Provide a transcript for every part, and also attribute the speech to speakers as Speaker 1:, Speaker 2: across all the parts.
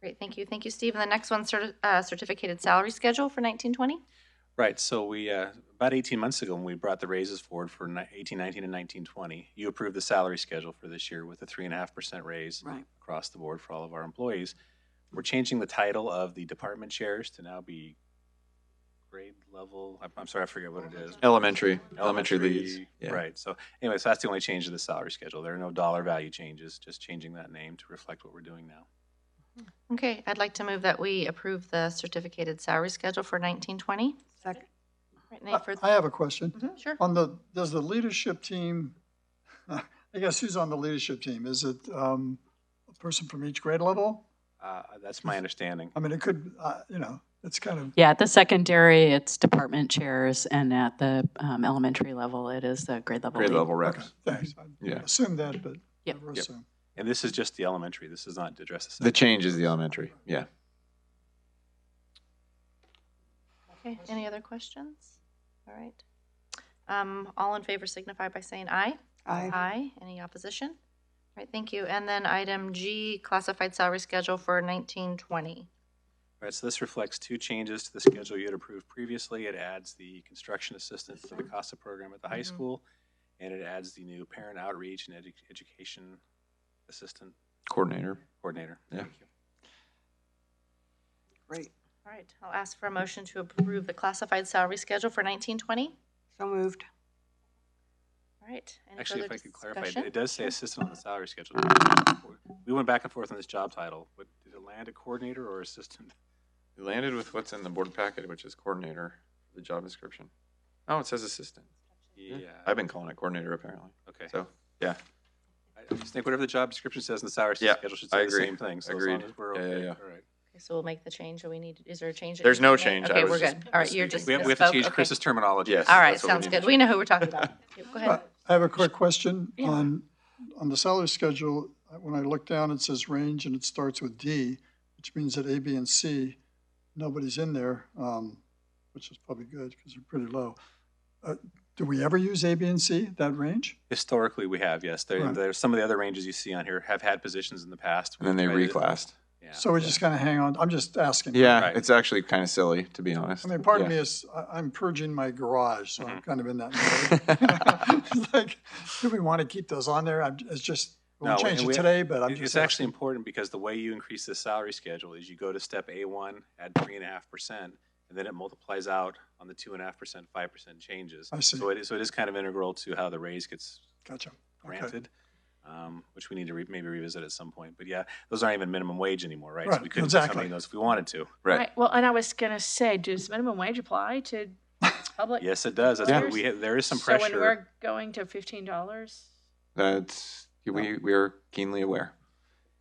Speaker 1: Great, thank you. Thank you, Steve. And the next one, certi- uh, certificated salary schedule for 1920?
Speaker 2: Right, so we, uh, about 18 months ago, when we brought the raises forward for ni- 18, 19, and 19, 20, you approved the salary schedule for this year with a 3.5% raise
Speaker 3: Right.
Speaker 2: across the board for all of our employees. We're changing the title of the department chairs to now be grade level, I'm- I'm sorry, I forget what it is.
Speaker 4: Elementary, elementary leads. Yeah.
Speaker 2: Right, so anyway, so that's the only change to the salary schedule. There are no dollar value changes, just changing that name to reflect what we're doing now.
Speaker 1: Okay, I'd like to move that we approve the certificated salary schedule for 1920.
Speaker 3: Second.
Speaker 1: Right, Nate, for-
Speaker 5: Uh,
Speaker 1: Mm-hmm.
Speaker 5: I I have a question.
Speaker 1: Sure.
Speaker 5: On the, does the leadership team, I guess who's on the leadership team? Is it um, a person from each grade level?
Speaker 2: Uh, That's my understanding.
Speaker 5: I mean, it could, uh, you know, it's kind of,
Speaker 3: Yeah, at the secondary, it's department chairs, and at the um, elementary level, it is the grade level.
Speaker 4: Grade
Speaker 3: lead.
Speaker 4: level
Speaker 5: okay,
Speaker 4: reps.
Speaker 5: thanks. I
Speaker 4: Yeah.
Speaker 5: Assume that, but
Speaker 3: Yep.
Speaker 5: never
Speaker 4: Yep.
Speaker 5: assume.
Speaker 2: And this is just the elementary, this is not to address the
Speaker 4: The
Speaker 2: secondary.
Speaker 4: change is the elementary. Yeah.
Speaker 1: Okay, any other questions? All right. Um, All in favor signify by saying aye.
Speaker 3: Aye.
Speaker 1: Any opposition? All right, thank you. And then item G, classified salary schedule for 1920.
Speaker 2: All right, so this reflects two changes to the schedule you had approved previously. It adds the construction assistance to the
Speaker 1: Mm-hmm.
Speaker 2: CASA program at the high
Speaker 1: Mhm.
Speaker 2: school, and it adds the new parent outreach and edu- education assistant
Speaker 4: Coordinator.
Speaker 2: coordinator.
Speaker 4: Yeah.
Speaker 2: Thank you.
Speaker 6: Great.
Speaker 1: All right, I'll ask for a motion to approve the classified salary schedule for 1920.
Speaker 6: So moved.
Speaker 1: All right. any
Speaker 2: Actually, if
Speaker 1: further
Speaker 2: I could clarify,
Speaker 1: discussion?
Speaker 2: it does say assistant on the salary schedule. We went back and forth on this job title. What- Did it land a coordinator or assistant?
Speaker 4: You landed with what's in the board packet, which is coordinator, the job description. Oh, it says assistant.
Speaker 2: Yeah,
Speaker 4: I've been calling it coordinator apparently.
Speaker 2: okay.
Speaker 4: So, yeah,
Speaker 2: I I just think whatever the job description says in the salary
Speaker 4: Yeah,
Speaker 2: schedule should
Speaker 4: I
Speaker 2: say the
Speaker 4: agree.
Speaker 2: same thing. So as
Speaker 4: Agreed.
Speaker 2: long as we're
Speaker 4: Yeah, yeah,
Speaker 2: okay,
Speaker 4: yeah.
Speaker 2: all right.
Speaker 1: Okay, so we'll make the change that we need, is there a change? that
Speaker 4: There's
Speaker 1: needs
Speaker 4: no
Speaker 1: to be made?
Speaker 4: change. I
Speaker 1: Okay,
Speaker 4: was
Speaker 1: we're
Speaker 4: just
Speaker 1: good. All right, you're
Speaker 4: misspeaking.
Speaker 1: just.
Speaker 2: We have, we have to
Speaker 1: misspoke.
Speaker 2: change
Speaker 1: Okay.
Speaker 2: Chris's terminology.
Speaker 4: Yes.
Speaker 1: All right,
Speaker 4: That's what we
Speaker 1: sounds
Speaker 4: need to
Speaker 1: good. We know who we're talking about. Okay, Go ahead.
Speaker 5: I have a quick question on, on the salary schedule. When I look down, it says range and it starts with D, which means that A, B, and C, nobody's in there, um, which is probably good because they're pretty low. Uh, Do we ever use A, B, and C, that range?
Speaker 2: Historically, we have, yes. There,
Speaker 5: Right.
Speaker 2: there's some of the other ranges you see on here have had positions in the past.
Speaker 4: and then they
Speaker 2: We've tried to-
Speaker 4: reclassed.
Speaker 2: Yeah.
Speaker 5: So we just kind of hang on, I'm just asking.
Speaker 4: Yeah,
Speaker 2: Right.
Speaker 4: it's actually kind of silly to be honest.
Speaker 5: I mean, part of
Speaker 4: Yeah.
Speaker 5: me is, I- I'm purging my garage, so
Speaker 2: Mm-hmm.
Speaker 5: I'm kind of in that mode. It's
Speaker 4: Right.
Speaker 5: Like, do we want to keep those on there? I'm, it's just,
Speaker 2: No,
Speaker 5: we'll change
Speaker 2: and we-
Speaker 5: it today, but I'm
Speaker 2: It-
Speaker 5: just.
Speaker 2: It's actually important because the way you increase the salary schedule is you go to step A1, add three and a half percent, and then it multiplies out on the two and a half percent, five percent changes.
Speaker 5: I see.
Speaker 2: So it is, so it is kind of integral to how the raise gets
Speaker 5: Gotcha. Okay.
Speaker 2: granted, um, which we need to re- maybe revisit at some point. But yeah, those aren't even minimum wage anymore, right? So
Speaker 5: Right,
Speaker 2: we couldn't put something
Speaker 5: exactly.
Speaker 2: in those if we wanted to.
Speaker 7: Right. Well, and I was going to say, does minimum wage apply to public?
Speaker 2: Yes, it does. That's
Speaker 4: Yeah.
Speaker 2: what we, ha- there is some
Speaker 7: So when
Speaker 2: pressure.
Speaker 7: we're going to fifteen dollars,
Speaker 4: That's we we are keenly aware.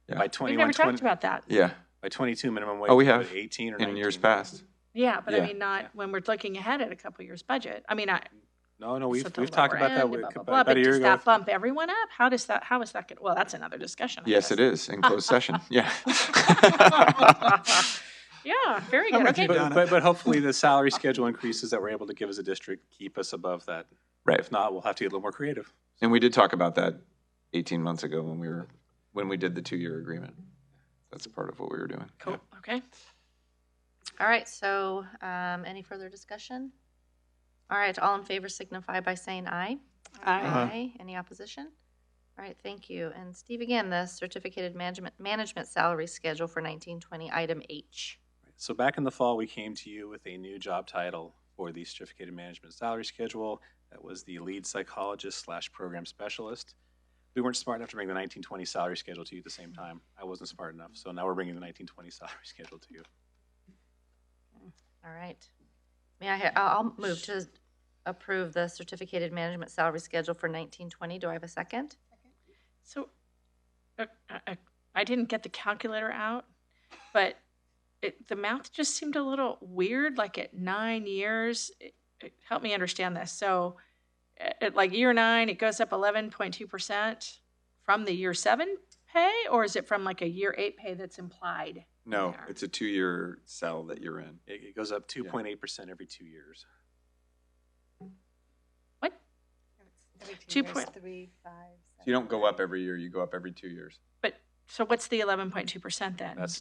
Speaker 4: yeah.
Speaker 2: By
Speaker 7: we've
Speaker 2: twenty-one,
Speaker 7: never talked
Speaker 2: twenty,
Speaker 7: about that.
Speaker 4: Yeah,
Speaker 2: by twenty-two minimum wage.
Speaker 4: Oh, we
Speaker 2: put
Speaker 4: have.
Speaker 2: Eighteen or
Speaker 4: in
Speaker 2: nineteen.
Speaker 4: years past.
Speaker 7: Yeah, but
Speaker 4: Yeah.
Speaker 7: I mean, not when we're looking ahead at a couple years budget. I mean, I
Speaker 2: No, no,
Speaker 7: so
Speaker 2: we've,
Speaker 7: at the
Speaker 2: we've talked
Speaker 7: lower
Speaker 2: about that
Speaker 7: end,
Speaker 2: with-
Speaker 7: blah, blah,
Speaker 2: about
Speaker 7: blah,
Speaker 2: about
Speaker 7: but
Speaker 2: a year
Speaker 7: does
Speaker 2: ago.
Speaker 7: that bump everyone up? How does that? How is that? Gonna, well, that's another discussion. I
Speaker 4: Yes,
Speaker 7: guess.
Speaker 4: it is in closed session. Yeah.
Speaker 7: Yeah, very
Speaker 5: I'm
Speaker 7: good.
Speaker 5: with you,
Speaker 7: Okay,
Speaker 2: But,
Speaker 5: Donna.
Speaker 2: but, but hopefully the salary schedule increases that we're able to give as a district keep us above that.
Speaker 4: right.
Speaker 2: If not, we'll have to get a little more creative.
Speaker 4: And we did talk about that 18 months ago when we were, when we did the two-year agreement. That's a part of what we were doing.
Speaker 7: cool. Okay.
Speaker 1: All right, so um, any further discussion? All right, all in favor signify by saying aye. Aye. Any opposition? All right, thank you. And Steve, again, the certificated management, management salary schedule for 1920, item H.
Speaker 2: So back in the fall, we came to you with a new job title for the certificated management salary schedule. That was the lead psychologist slash program specialist. We weren't smart enough to bring the 1920 salary schedule to you at the same time. I wasn't smart enough, so now we're bringing the 1920 salary schedule to you.
Speaker 1: All right. May I, ha- I'll I'll move to approve the certificated management salary schedule for 1920. Do I have a second?
Speaker 7: So, uh, uh, uh, I didn't get the calculator out, but it, the math just seemed a little weird. Like at nine years, it, it, help me understand this. So, a- at like year nine, it goes up eleven point two percent from the year seven pay, or is it from like a year eight pay that's implied?
Speaker 4: No,
Speaker 7: Yeah.
Speaker 4: it's a two-year cell that you're in.
Speaker 2: It, it goes up 2.8% every two years.
Speaker 7: What? Two point-
Speaker 6: Three, five.
Speaker 4: You don't go up every year, you go up every two years.
Speaker 7: But so, what's the eleven point two percent then?
Speaker 2: That's